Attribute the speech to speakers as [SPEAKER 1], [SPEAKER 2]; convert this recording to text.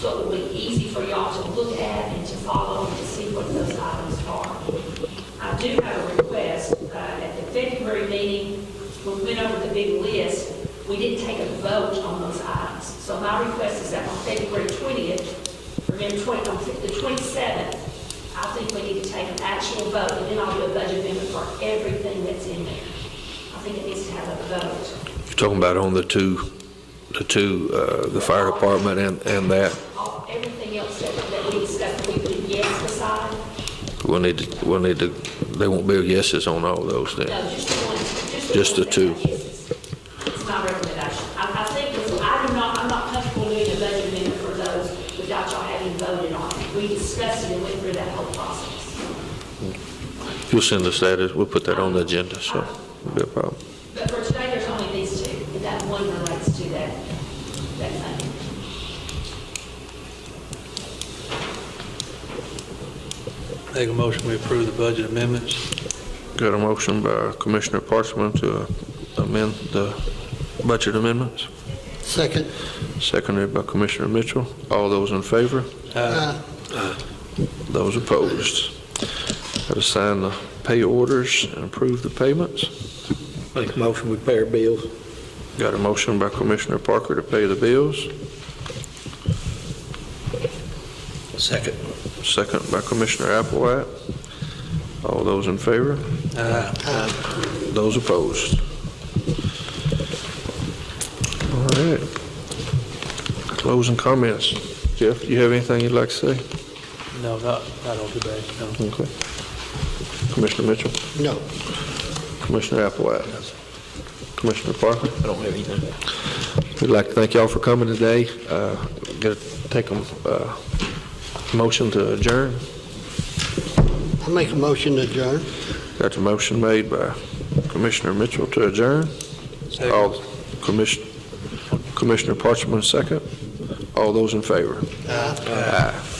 [SPEAKER 1] so it would be easy for y'all to look at and to follow and to see what those items are. I do have a request, uh, at the February meeting, when we went over the big list, we didn't take a vote on those items. So my request is that on February 20th, remember 20, on the 27th, I think we need to take an actual vote, and then I'll do a budget amendment for everything that's in there. I think it needs to have a vote.
[SPEAKER 2] You're talking about on the two, the two, uh, the fire department and, and that.
[SPEAKER 1] All, everything else that, that we discussed, we put yes beside,
[SPEAKER 2] We'll need to, we'll need to, they won't be yeses on all those then.
[SPEAKER 1] No, just the one, just the.
[SPEAKER 2] Just the
[SPEAKER 1] one that
[SPEAKER 2] two.
[SPEAKER 1] is. It's my recommendation. I, I think, if- I do not, I'm not comfortable doing a budget amendment for those without y'all having voted on it. We discussed it and went through that whole process.
[SPEAKER 2] You'll send us that, we'll put that on the agenda, so it'll be a problem.
[SPEAKER 1] But for today, there's only these two, and that one relates to that, that thing.
[SPEAKER 3] Make a motion, we approve the budget amendments.
[SPEAKER 2] Got a motion by Commissioner Parchman to amend the budget amendments,
[SPEAKER 4] Second.
[SPEAKER 2] seconded by Commissioner Mitchell. All those in favor?
[SPEAKER 4] Aye.
[SPEAKER 2] Those opposed? Got to sign the pay orders and approve the payments.
[SPEAKER 5] Make a motion, we pay our bills.
[SPEAKER 2] Got a motion by Commissioner Parker to pay the bills,
[SPEAKER 5] Second.
[SPEAKER 2] second by Commissioner Applewhite. All those in favor?
[SPEAKER 3] Aye.
[SPEAKER 2] Those opposed? All right. Closing comments. Jeff, do you have anything you'd like to say?
[SPEAKER 3] No, not, not on today, no.
[SPEAKER 2] Okay. Commissioner Mitchell,
[SPEAKER 4] No.
[SPEAKER 2] Commissioner Applewhite, Commissioner Parker.
[SPEAKER 5] I don't have anything.
[SPEAKER 2] We'd like to thank y'all for coming today. Uh, Gonna take a uh, motion to adjourn.
[SPEAKER 4] I make a motion to adjourn.
[SPEAKER 2] Got a motion made by Commissioner Mitchell to adjourn.
[SPEAKER 3] Second.
[SPEAKER 2] All- Commission-
[SPEAKER 4] Uh,
[SPEAKER 2] Commissioner Parchman, second. All those in favor? Aye.